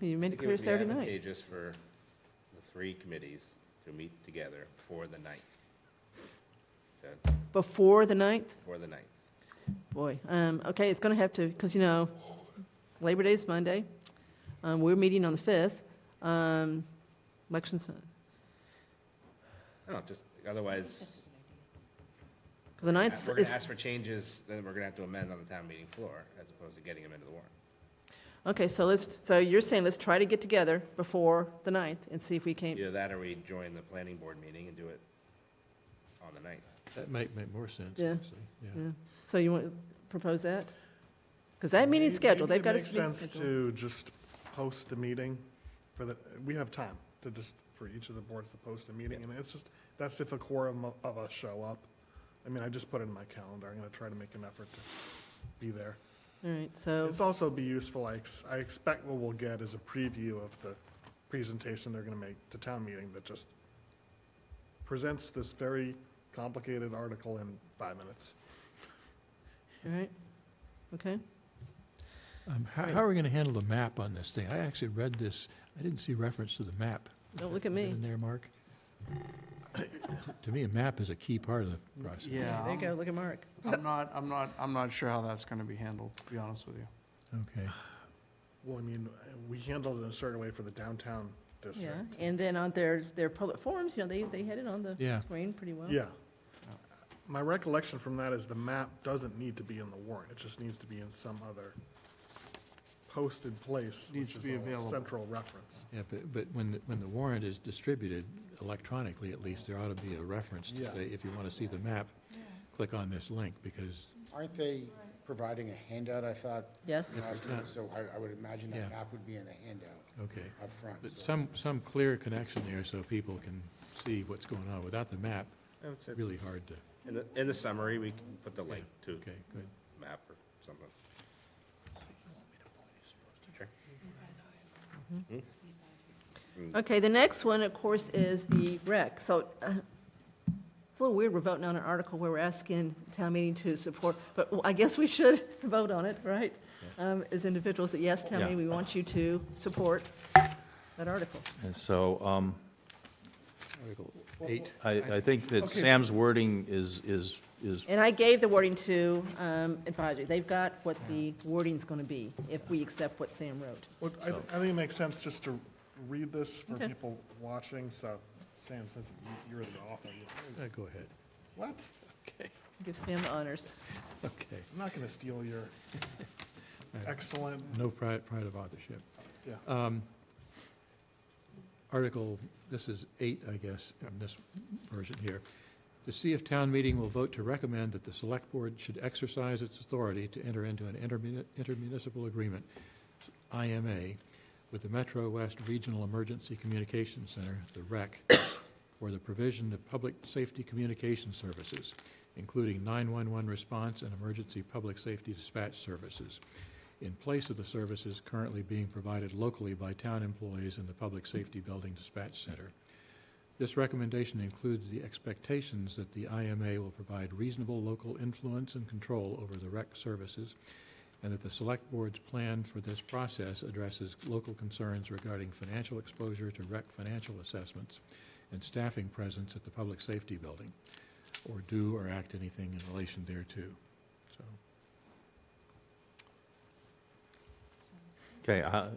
You made I it think clear would be Saturday night. advantageous for the three committees to meet together before the ninth. That- Before the ninth? Before the ninth. Boy, um, okay, it's gonna have to, because, you know, Labor Day is Monday. Um, we're meeting on the fifth. Um, elections, because I don't know, just, otherwise, the we're ninth gonna is, ask for changes, then we're gonna have to amend on the town meeting floor, as opposed to getting them into the warrant. okay, so let's, so you're saying let's try to get together before the ninth and see if we can, Either that, or we join the planning board meeting and do it on the ninth. That might make more sense, Yeah. actually, yeah. yeah. So you want to propose that? Because that meeting's scheduled, they've got a meeting Maybe it makes sense scheduled. to just post a meeting for the, we have time to just, for each of the boards to post a meeting, and it's just, that's if a quorum of- of us show up. I mean, I just put it in my calendar, I'm gonna try to make an effort to be there. All right, so, It's also be useful, I, ex- I expect what we'll get is a preview of the presentation they're gonna make to town meeting that just presents this very complicated article in five minutes. all right, okay. Um, How Right. how are we going to handle the map on this thing? I actually read this, I didn't see reference to the map. Don't look at Is that me. In there, Mark? To me, a map is a key part of the process. Yeah, There you go, I'm- look at Mark. I'm not, I'm not, I'm not sure how that's gonna be handled, to be honest with you. Okay. Well, I mean, we handled it in a certain way for the downtown district. Yeah, and then on their, their public forums, you know, they, they had it on Yeah. the screen pretty well. Yeah. My recollection from that is the map doesn't need to be in the warrant, it just needs to be in some other posted place, which Needs to is be a available. central reference. Yeah, but, but when, the- when the warrant is distributed electronically, at least, there ought to be a reference to Yeah. say, if you want to see the map, click on this link, because, Aren't they providing a handout, I thought? Yes. when I was doing not- it? So I, I would imagine Yeah. that map would be in the handout okay. up front. But so- some, some clear connection there so people can see what's going on. Without the map, I would say, really hard to, in the, in the summary, we can put the link to okay, good. map or something. Sure. Okay, the next one, of course, is the rec. So uh, it's a little weird, we're voting on an article where we're asking town meeting to support, but I guess we should vote on it, right? Um, As individuals, that yes, town meeting, we want you to support that article. And so, um, Eight. I, I think that Sam's wording is, is, is, And I gave the wording to um, advisory. They've got what the wording's going to be if we accept what Sam wrote. Well, I, I think it makes sense just to read this for Okay. people watching, so, Sam, since you- you're the author, you- Uh, Go ahead. what? Okay, Give Sam the honors. okay. I'm not gonna steal your excellent, No pride, pride of authorship. yeah. Uh, Article, this is eight, I guess, in this version here. To see if town meeting will vote to recommend that the select board should exercise its authority to enter into an intermuni- intermunicipal agreement, IMA, with the Metro West Regional Emergency Communications Center, the REC, for the provision of public safety communication services, including 911 response and emergency public safety dispatch services, in place of the services currently being provided locally by town employees in the Public Safety Building Dispatch Center. This recommendation includes the expectations that the IMA will provide reasonable local influence and control over the rec services, and that the Select Board's plan for this process addresses local concerns regarding financial exposure to rec financial assessments and staffing presence at the Public Safety Building, or do or act anything in relation thereto. So, okay, I,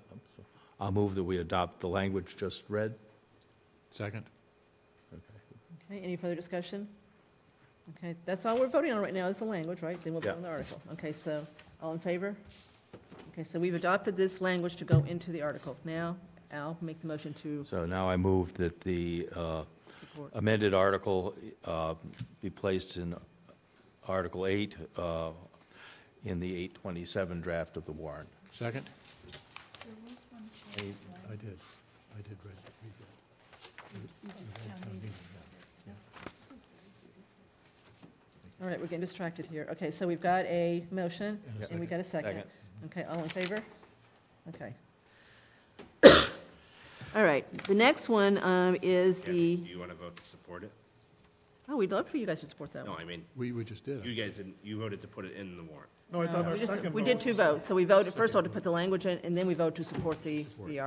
I'll move that we adopt the language just read. second? Okay, any further discussion? Okay, that's all we're voting on right now, is the language, right? Then we'll vote Yeah. on the article. Okay, so, all in favor? Okay, so we've adopted this language to go into the article. Now, Al, make the motion to So now I move that the uh, support. amended article uh, be placed in Article 8 uh, in the 827 draft of the warrant. Second? I I did, I did read, read that. You read town meeting, yeah, yeah. All right, we're getting distracted here. Okay, so we've got a motion, And a and we got a second. Second. Okay, all in favor? Okay. All right, the next one um, is Yeah, Do the, you want to vote to support it? oh, we'd love for you guys to support that No, one. I mean, We, we just did. you guys didn't, you voted to put it in the warrant. No, I thought We our just- second We did vote- two votes, so we voted, first of all, to put the language in, and then we vote to support the, the